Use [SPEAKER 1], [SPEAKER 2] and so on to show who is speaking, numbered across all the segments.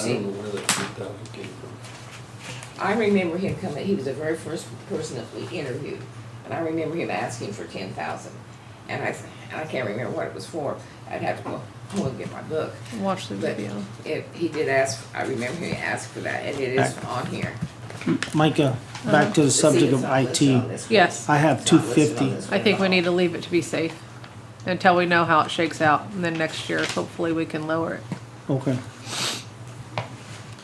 [SPEAKER 1] I don't know where that three thousand came
[SPEAKER 2] I remember him coming, he was the very first person that we interviewed, and I remember him asking for ten thousand. And I, and I can't remember what it was for, I'd have to go home and get my book.
[SPEAKER 3] Watch the
[SPEAKER 2] But
[SPEAKER 3] video.
[SPEAKER 2] it, he did ask, I remember he asked for that, and it is on here.
[SPEAKER 4] Micah,
[SPEAKER 3] Uh-huh.
[SPEAKER 4] back to the
[SPEAKER 2] See,
[SPEAKER 4] subject
[SPEAKER 2] it's
[SPEAKER 4] of
[SPEAKER 2] not listed on
[SPEAKER 4] IT.
[SPEAKER 2] this one.
[SPEAKER 3] Yes,
[SPEAKER 4] I have
[SPEAKER 2] It's not listed on
[SPEAKER 4] 250.
[SPEAKER 2] this
[SPEAKER 3] I
[SPEAKER 2] one
[SPEAKER 3] think
[SPEAKER 2] at
[SPEAKER 3] we
[SPEAKER 2] all.
[SPEAKER 3] need to leave it to be safe until we know how it shakes out. And then next year, hopefully we can lower it.
[SPEAKER 4] Okay.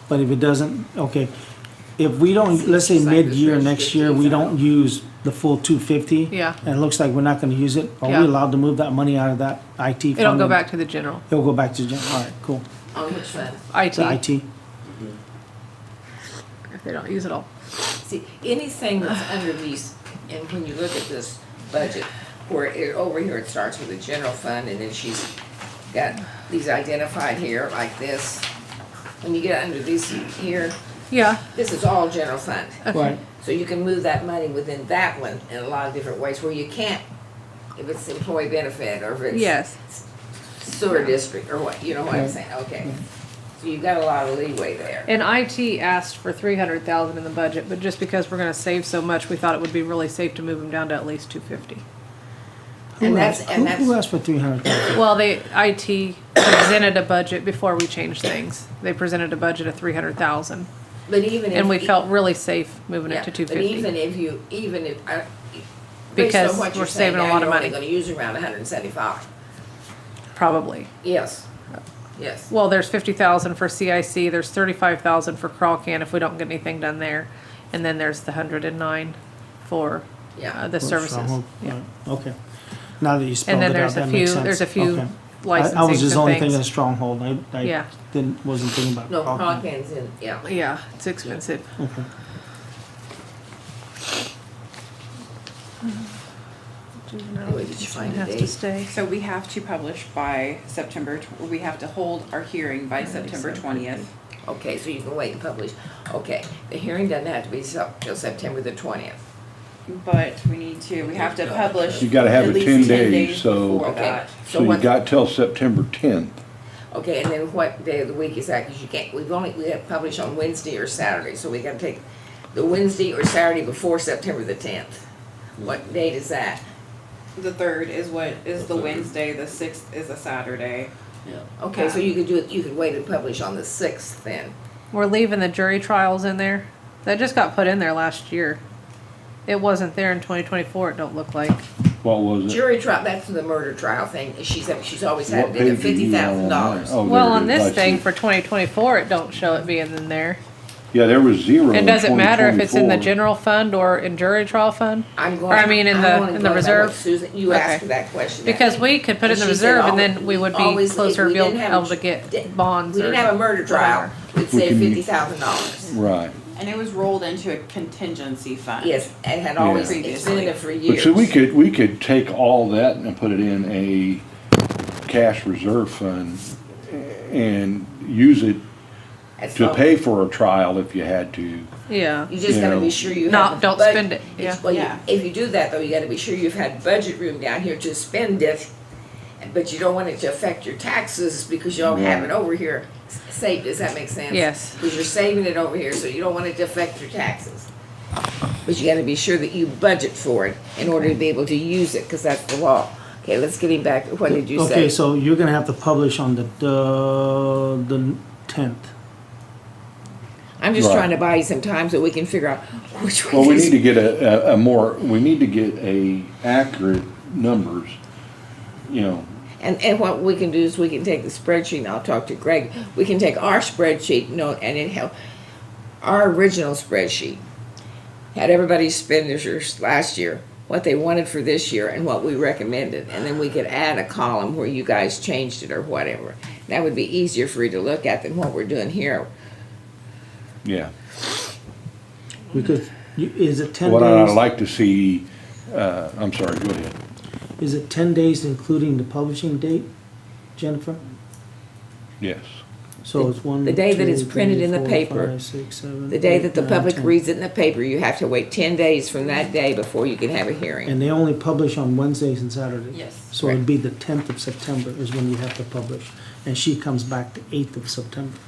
[SPEAKER 4] But if it doesn't, okay, if we don't, let's say
[SPEAKER 2] It's like
[SPEAKER 4] mid-year
[SPEAKER 2] this
[SPEAKER 4] next year, we don't use the full two fifty.
[SPEAKER 3] Yeah.
[SPEAKER 4] And it looks like we're not gonna use it, are we
[SPEAKER 3] Yeah.
[SPEAKER 4] allowed to move that money out of that IT fund?
[SPEAKER 3] It'll go back to the general,
[SPEAKER 4] It'll go back to, gen- all right, cool,
[SPEAKER 2] On which one?
[SPEAKER 3] IT,
[SPEAKER 4] to IT,
[SPEAKER 3] if they don't use it all.
[SPEAKER 2] See, anything that's under these, and when you look at this budget, where it, over here, it starts with the general fund, and then she's got these identified here, like this. When you get under these here,
[SPEAKER 3] Yeah,
[SPEAKER 2] this is all general fund.
[SPEAKER 4] right,
[SPEAKER 2] So you can move that money within that one in a lot of different ways, where you can't, if it's employee benefit, or if it's.
[SPEAKER 3] yes.
[SPEAKER 2] Sewer district, or what, you know what I'm saying, okay. So you've got a lot of leeway there.
[SPEAKER 3] And IT asked for three hundred thousand in the budget, but just because we're gonna save so much, we thought it would be really safe to move them down to at least two fifty.
[SPEAKER 4] Who
[SPEAKER 2] And that's,
[SPEAKER 4] asked-
[SPEAKER 2] and
[SPEAKER 4] who- Who
[SPEAKER 2] that's,
[SPEAKER 4] asked for three hundred thousand?
[SPEAKER 3] Well, they, IT presented a budget before we changed things. They presented a budget of three hundred thousand,
[SPEAKER 2] but even if.
[SPEAKER 3] and we
[SPEAKER 2] e-
[SPEAKER 3] felt really safe moving
[SPEAKER 2] Yeah,
[SPEAKER 3] it to two
[SPEAKER 2] But even
[SPEAKER 3] fifty.
[SPEAKER 2] if you, even if, I. based on
[SPEAKER 3] Because
[SPEAKER 2] what you're
[SPEAKER 3] we're
[SPEAKER 2] saying
[SPEAKER 3] saving a
[SPEAKER 2] now,
[SPEAKER 3] lot of
[SPEAKER 2] You're
[SPEAKER 3] money.
[SPEAKER 2] only gonna use around hundred and seventy-five.
[SPEAKER 3] Probably.
[SPEAKER 2] Yes, yes.
[SPEAKER 3] Well, there's fifty thousand for CIC, there's thirty-five thousand for crawl can if we don't get anything done there. And then there's the hundred and nine for,
[SPEAKER 2] Yeah.
[SPEAKER 3] uh, the services. Yeah.
[SPEAKER 4] Okay, now that you spelled
[SPEAKER 3] And
[SPEAKER 4] it
[SPEAKER 3] then
[SPEAKER 4] out,
[SPEAKER 3] there's a
[SPEAKER 4] that makes
[SPEAKER 3] few,
[SPEAKER 4] sense.
[SPEAKER 3] there's a few
[SPEAKER 4] Okay. I- I was
[SPEAKER 3] licensing
[SPEAKER 4] just only
[SPEAKER 3] and
[SPEAKER 4] thinking of
[SPEAKER 3] things.
[SPEAKER 4] stronghold, I, I
[SPEAKER 3] Yeah.
[SPEAKER 4] didn't, wasn't thinking about.
[SPEAKER 2] No,
[SPEAKER 4] Crockett.
[SPEAKER 2] Crockin's in, yeah.
[SPEAKER 3] Yeah, it's expensive.
[SPEAKER 4] Okay.
[SPEAKER 2] Where did you find the
[SPEAKER 3] Has to
[SPEAKER 2] date?
[SPEAKER 3] stay.
[SPEAKER 5] So we have to publish by September, tw- we have to hold our hearing by September twentieth.
[SPEAKER 2] Okay, so you can wait and publish. Okay, the hearing doesn't have to be so- till September the twentieth.
[SPEAKER 5] But we need to, we have to publish.
[SPEAKER 6] You gotta have
[SPEAKER 5] at
[SPEAKER 6] it
[SPEAKER 5] least
[SPEAKER 6] 10 days, so-
[SPEAKER 5] before
[SPEAKER 2] Okay,
[SPEAKER 5] that.
[SPEAKER 2] so
[SPEAKER 6] So you
[SPEAKER 2] what,
[SPEAKER 6] got till September tenth.
[SPEAKER 2] okay, and then what day of the week is that? Because you can't, we've only, we have published on Wednesday or Saturday, so we gotta take the Wednesday or Saturday before September the tenth. What date is that?
[SPEAKER 5] The third is what, is
[SPEAKER 1] The
[SPEAKER 5] the
[SPEAKER 1] third.
[SPEAKER 5] Wednesday, the sixth is a Saturday.
[SPEAKER 1] from. Yeah.
[SPEAKER 2] Okay, so you could do it, you could wait and publish on the sixth then.
[SPEAKER 3] We're leaving the jury trials in there. That just got put in there last year. It wasn't there in twenty twenty-four, it don't look like.
[SPEAKER 6] What was it?
[SPEAKER 2] Jury trial, that's the murder trial thing, she's, she's always had
[SPEAKER 6] What
[SPEAKER 2] it at
[SPEAKER 6] page are
[SPEAKER 2] fifty
[SPEAKER 6] you
[SPEAKER 2] thousand
[SPEAKER 6] on?
[SPEAKER 2] dollars.
[SPEAKER 6] Oh, there
[SPEAKER 3] Well,
[SPEAKER 6] it
[SPEAKER 3] on
[SPEAKER 6] is. I
[SPEAKER 3] this
[SPEAKER 6] see.
[SPEAKER 3] thing for twenty twenty-four, it don't show it being in there.
[SPEAKER 6] Yeah, there was zero
[SPEAKER 3] It
[SPEAKER 6] in
[SPEAKER 3] doesn't matter if it's in the
[SPEAKER 6] 2024.
[SPEAKER 3] general fund or in jury trial fund.
[SPEAKER 2] I'm
[SPEAKER 3] Or
[SPEAKER 2] going.
[SPEAKER 3] I mean, in
[SPEAKER 2] I'm
[SPEAKER 3] the,
[SPEAKER 2] only
[SPEAKER 3] in
[SPEAKER 2] going by
[SPEAKER 3] the
[SPEAKER 2] what
[SPEAKER 3] reserve,
[SPEAKER 2] Susan, you
[SPEAKER 3] Okay.
[SPEAKER 2] asked for that question.
[SPEAKER 3] because we could put it in the
[SPEAKER 2] And she said
[SPEAKER 3] reserve and
[SPEAKER 2] always-
[SPEAKER 3] then we would be
[SPEAKER 2] always-
[SPEAKER 3] closer
[SPEAKER 2] if
[SPEAKER 3] to
[SPEAKER 2] we
[SPEAKER 3] be able
[SPEAKER 2] didn't have a-
[SPEAKER 3] able to get
[SPEAKER 2] We
[SPEAKER 3] bonds
[SPEAKER 2] didn't have
[SPEAKER 3] or,
[SPEAKER 2] a murder trial, we'd
[SPEAKER 6] We
[SPEAKER 2] say
[SPEAKER 6] can-
[SPEAKER 2] fifty thousand dollars.
[SPEAKER 6] Right.
[SPEAKER 5] And it was rolled into a contingency fund.
[SPEAKER 2] Yes, and had always,
[SPEAKER 5] Yeah.
[SPEAKER 2] it's been in there for
[SPEAKER 6] But
[SPEAKER 2] years.
[SPEAKER 6] so we could, we could take all that and put it in a cash reserve fund and use it
[SPEAKER 2] That's
[SPEAKER 6] to
[SPEAKER 2] all.
[SPEAKER 6] pay for a trial if you had to.
[SPEAKER 3] yeah.
[SPEAKER 2] You just
[SPEAKER 6] you
[SPEAKER 2] gotta
[SPEAKER 6] know.
[SPEAKER 2] be sure you have.
[SPEAKER 3] Not-
[SPEAKER 2] the
[SPEAKER 3] don't
[SPEAKER 2] bud-
[SPEAKER 3] spend it,
[SPEAKER 2] it's-
[SPEAKER 3] yeah.
[SPEAKER 2] Well, you-
[SPEAKER 5] Yeah.
[SPEAKER 2] if you do that though, you gotta be sure you've had budget room down here to spend it, but you don't want it to affect your taxes because you don't have it over here s- saved, does that make sense?
[SPEAKER 3] Yes.
[SPEAKER 2] Because you're saving it over here, so you don't want it to affect your taxes. But you gotta be sure that you budget for it in order to be able to use it, cause that's the law. Okay, let's get him back, what did you say?
[SPEAKER 4] Okay, so you're gonna have to publish on the, the, the tenth.
[SPEAKER 2] I'm just
[SPEAKER 6] Right.
[SPEAKER 2] trying to buy you some time so we can figure out which
[SPEAKER 6] Well, we
[SPEAKER 2] one
[SPEAKER 6] need
[SPEAKER 2] is
[SPEAKER 6] to get a, a, a more, we need to get a accurate numbers, you know,
[SPEAKER 2] And, and what we can do is we can take the spreadsheet, and I'll talk to Greg, we can take our spreadsheet, no, and it help, our original spreadsheat had everybody spend expenditures last year, what they wanted for this year and what we recommended, and then we could add a column where you guys changed it or whatever. That would be easier for you to look at than what we're doing here.
[SPEAKER 6] yeah.
[SPEAKER 4] We could, you- is it ten
[SPEAKER 6] What I'd
[SPEAKER 4] days,
[SPEAKER 6] like to see, uh, I'm sorry, go ahead.
[SPEAKER 4] is it ten days including the publishing date, Jennifer?
[SPEAKER 6] Yes.
[SPEAKER 4] So it's one,
[SPEAKER 2] The
[SPEAKER 4] two,
[SPEAKER 2] day that it's printed
[SPEAKER 4] three,
[SPEAKER 2] in the
[SPEAKER 4] four,
[SPEAKER 2] paper.
[SPEAKER 4] five, six, seven,
[SPEAKER 2] The day
[SPEAKER 4] eight,
[SPEAKER 2] that the
[SPEAKER 4] nine,
[SPEAKER 2] public
[SPEAKER 4] 10.
[SPEAKER 2] reads it in the paper, you have to wait ten days from that day before you can have a hearing.
[SPEAKER 4] And they only publish on Wednesdays and Saturdays.
[SPEAKER 5] Yes.
[SPEAKER 4] So it'd be the tenth of September is when you have to publish, and she comes back the eighth of September.